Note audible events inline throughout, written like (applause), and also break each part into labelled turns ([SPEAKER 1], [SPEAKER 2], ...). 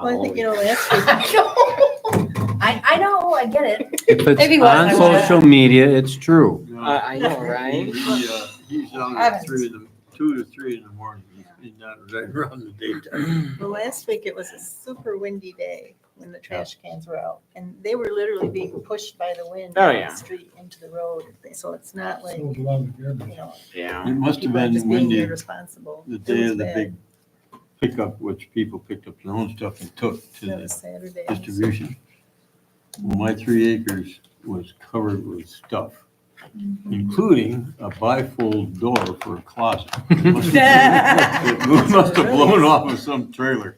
[SPEAKER 1] Well, I think, you know,
[SPEAKER 2] Oh,
[SPEAKER 1] last week,
[SPEAKER 3] (laughs)
[SPEAKER 4] I, I know, I get it.
[SPEAKER 5] If
[SPEAKER 3] If he
[SPEAKER 5] it's on
[SPEAKER 3] was, I would've.
[SPEAKER 5] social media, it's true.
[SPEAKER 6] No,
[SPEAKER 2] I, I know,
[SPEAKER 6] He,
[SPEAKER 2] right?
[SPEAKER 6] he, uh, he's down
[SPEAKER 3] I
[SPEAKER 6] at
[SPEAKER 3] haven't.
[SPEAKER 6] three in the, two to three in the morning. He's not right (laughs) around the daytime.
[SPEAKER 1] well, last week it was a super windy day when the trash cans were out. And they were literally being pushed by the wind.
[SPEAKER 2] Oh,
[SPEAKER 1] down
[SPEAKER 2] yeah.
[SPEAKER 1] The street into the road. So it's not like,
[SPEAKER 7] So
[SPEAKER 1] you
[SPEAKER 7] belong to everybody.
[SPEAKER 1] know.
[SPEAKER 2] Yeah.
[SPEAKER 6] It must have
[SPEAKER 1] people are
[SPEAKER 6] been
[SPEAKER 1] just being
[SPEAKER 6] windy
[SPEAKER 1] irresponsible.
[SPEAKER 6] the
[SPEAKER 1] It
[SPEAKER 6] day
[SPEAKER 1] was
[SPEAKER 6] of the
[SPEAKER 1] bad.
[SPEAKER 6] big pickup, which people picked up their own stuff and took to
[SPEAKER 1] That
[SPEAKER 6] the
[SPEAKER 1] was Saturday.
[SPEAKER 6] distribution. Well, My three acres was covered with stuff,
[SPEAKER 1] Mm-hmm.
[SPEAKER 6] including a bifold door for a closet. It must have it must have blown off of some trailer.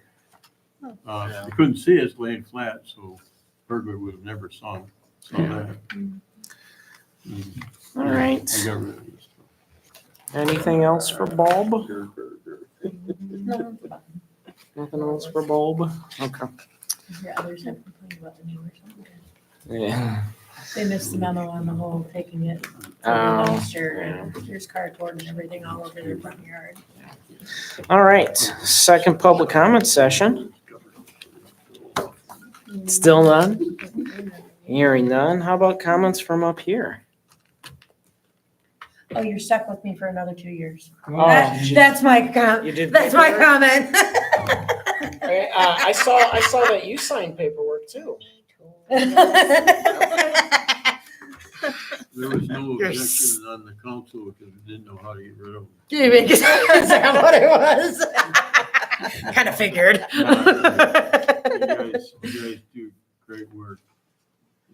[SPEAKER 6] Uh, you Couldn't see us laying flat, so burglar would have never saw, saw that. Mm,
[SPEAKER 2] All
[SPEAKER 6] I
[SPEAKER 2] right.
[SPEAKER 6] got rid of this.
[SPEAKER 2] Anything else for Bob?
[SPEAKER 3] No,
[SPEAKER 2] Nothing else for Bob? Okay.
[SPEAKER 3] yeah, others have complained about the neighbors.
[SPEAKER 2] Yeah.
[SPEAKER 3] They missed the memo on the whole taking it to the
[SPEAKER 2] Oh,
[SPEAKER 3] dumpster and there's cardboard and everything all over their front yard.
[SPEAKER 2] all right. Second public comment session. Still none? Hearing none. How about comments from up here?
[SPEAKER 3] Oh, you're stuck with me for another two years.
[SPEAKER 2] Oh.
[SPEAKER 3] That- That's my com,
[SPEAKER 2] You did.
[SPEAKER 3] that's my comment.
[SPEAKER 2] Hey, uh, I saw, I saw that you signed paperwork too.
[SPEAKER 6] There was no
[SPEAKER 2] Yes.
[SPEAKER 6] objection on the council because we didn't know how to get rid of them.
[SPEAKER 3] (laughs) Is that what it was? Kind of figured.
[SPEAKER 6] You guys, you guys do great work.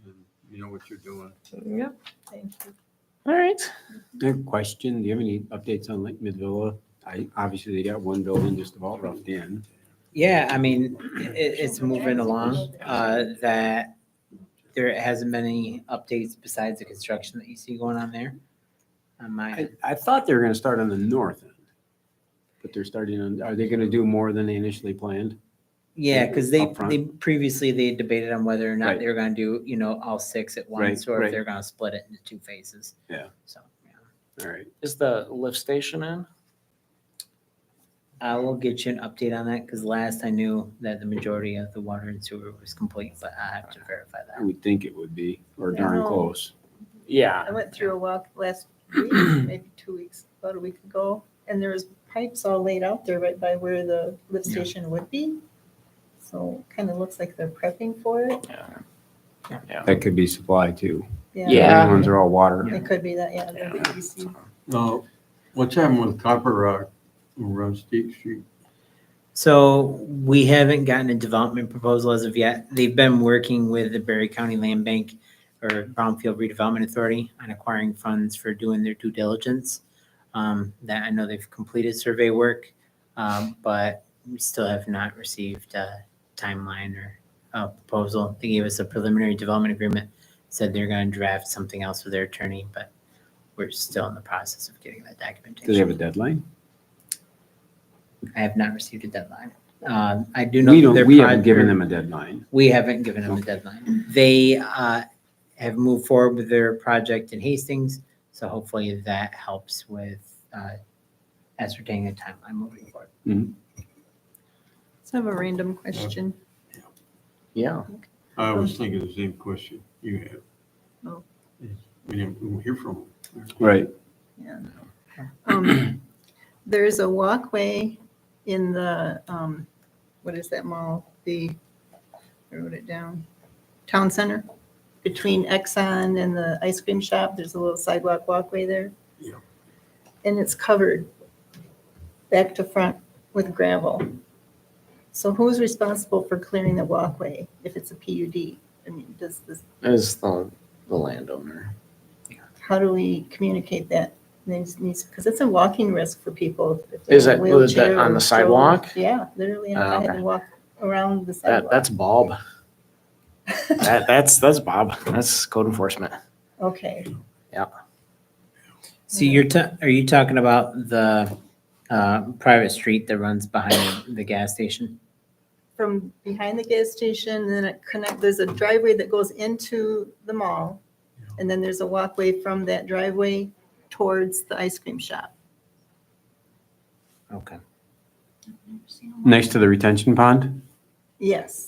[SPEAKER 6] and You know what you're doing.
[SPEAKER 3] (laughs) Yep.
[SPEAKER 1] Thank you.
[SPEAKER 2] All right.
[SPEAKER 5] Uh, Question, do you have any updates on Lake Midvilla? I, obviously, they got one building just about roughed in.
[SPEAKER 8] Yeah, I mean, it, it's moving along, uh, that there hasn't been any updates besides the construction that you see going on there. On my,
[SPEAKER 5] I, I thought they were gonna start on the north end. But they're starting on, are they gonna do more than they initially planned?
[SPEAKER 8] yeah, because they,
[SPEAKER 5] Up front.
[SPEAKER 8] they, previously they debated on whether or not
[SPEAKER 5] Right.
[SPEAKER 8] they were gonna do, you know, all six at once,
[SPEAKER 5] Right,
[SPEAKER 8] or
[SPEAKER 5] right.
[SPEAKER 8] if they're gonna split it into two phases.
[SPEAKER 5] Yeah.
[SPEAKER 8] So, yeah.
[SPEAKER 5] All right.
[SPEAKER 2] Is the lift station in?
[SPEAKER 8] I will get you an update on that, because last I knew that the majority of the water and sewer was complete, but I have to verify
[SPEAKER 5] I
[SPEAKER 8] that.
[SPEAKER 5] would think it would be, or darn
[SPEAKER 1] No.
[SPEAKER 5] close.
[SPEAKER 2] Yeah.
[SPEAKER 1] (laughs) I went through a walk last week, maybe two weeks, about a week ago, and there was pipes all laid out there right by where the lift
[SPEAKER 8] Yeah.
[SPEAKER 1] station would be. So kind of looks like they're prepping for it.
[SPEAKER 5] That could be supply too.
[SPEAKER 2] Yeah.
[SPEAKER 5] The Ones are all water.
[SPEAKER 1] It could be that, yeah. the
[SPEAKER 2] Yeah.
[SPEAKER 1] BBC.
[SPEAKER 6] Now, what's happening with Copper Rock over on State Street?
[SPEAKER 8] So we haven't gotten a development proposal as of yet. They've been working with the Berry County Land Bank or Brownfield Redevelopment Authority on acquiring funds for doing their due diligence. Um, that I know they've completed survey work, um, but we still have not received a timeline or a proposal. They gave us a preliminary development agreement, said they're gonna draft something else with their attorney, but we're still in the process of getting that documentation.
[SPEAKER 5] Do they have a deadline?
[SPEAKER 8] I have not received a deadline. Um, I do know.
[SPEAKER 5] We
[SPEAKER 8] that their
[SPEAKER 5] don't, we haven't
[SPEAKER 8] project-
[SPEAKER 5] given them a deadline.
[SPEAKER 8] We haven't given them a
[SPEAKER 5] Okay.
[SPEAKER 8] deadline. They uh, have moved forward with their project in Hastings, so hopefully that helps with uh, ascertaining the timeline moving forward.
[SPEAKER 1] So I have a random question.
[SPEAKER 2] Yeah.
[SPEAKER 6] I was thinking the same question you had.
[SPEAKER 1] Oh.
[SPEAKER 6] We didn't we didn't hear from them.
[SPEAKER 5] Right.
[SPEAKER 1] Um, There's a walkway in the, um, what is that mall? The, I wrote it down, Town Center. Between Exxon and the ice cream shop, there's a little sidewalk walkway there.
[SPEAKER 6] Yeah.
[SPEAKER 1] And it's covered back to front with gravel. So who's responsible for clearing the walkway if it's a PUD? I mean, does this,
[SPEAKER 2] Is the, the landowner.
[SPEAKER 1] how do we communicate that? Needs, needs, because it's a walking risk for people. if they're
[SPEAKER 2] Is
[SPEAKER 1] in a
[SPEAKER 2] it, was that
[SPEAKER 1] wheelchair
[SPEAKER 2] on
[SPEAKER 1] or
[SPEAKER 2] the sidewalk?
[SPEAKER 1] Yeah, literally, and
[SPEAKER 2] Oh,
[SPEAKER 1] I had
[SPEAKER 2] okay.
[SPEAKER 1] to walk around the
[SPEAKER 2] That,
[SPEAKER 1] sidewalk.
[SPEAKER 2] that's Bob. That, that's, that's Bob. That's code enforcement.
[SPEAKER 1] (laughs) Okay,
[SPEAKER 8] So you're, ta- are you talking about the uh, private street that runs behind the gas station?
[SPEAKER 1] from behind the gas station, then it connect, there's a driveway that goes into the mall. And then there's a walkway from that driveway towards the ice cream shop.
[SPEAKER 8] Okay.
[SPEAKER 5] Next to the retention pond?
[SPEAKER 1] Yes.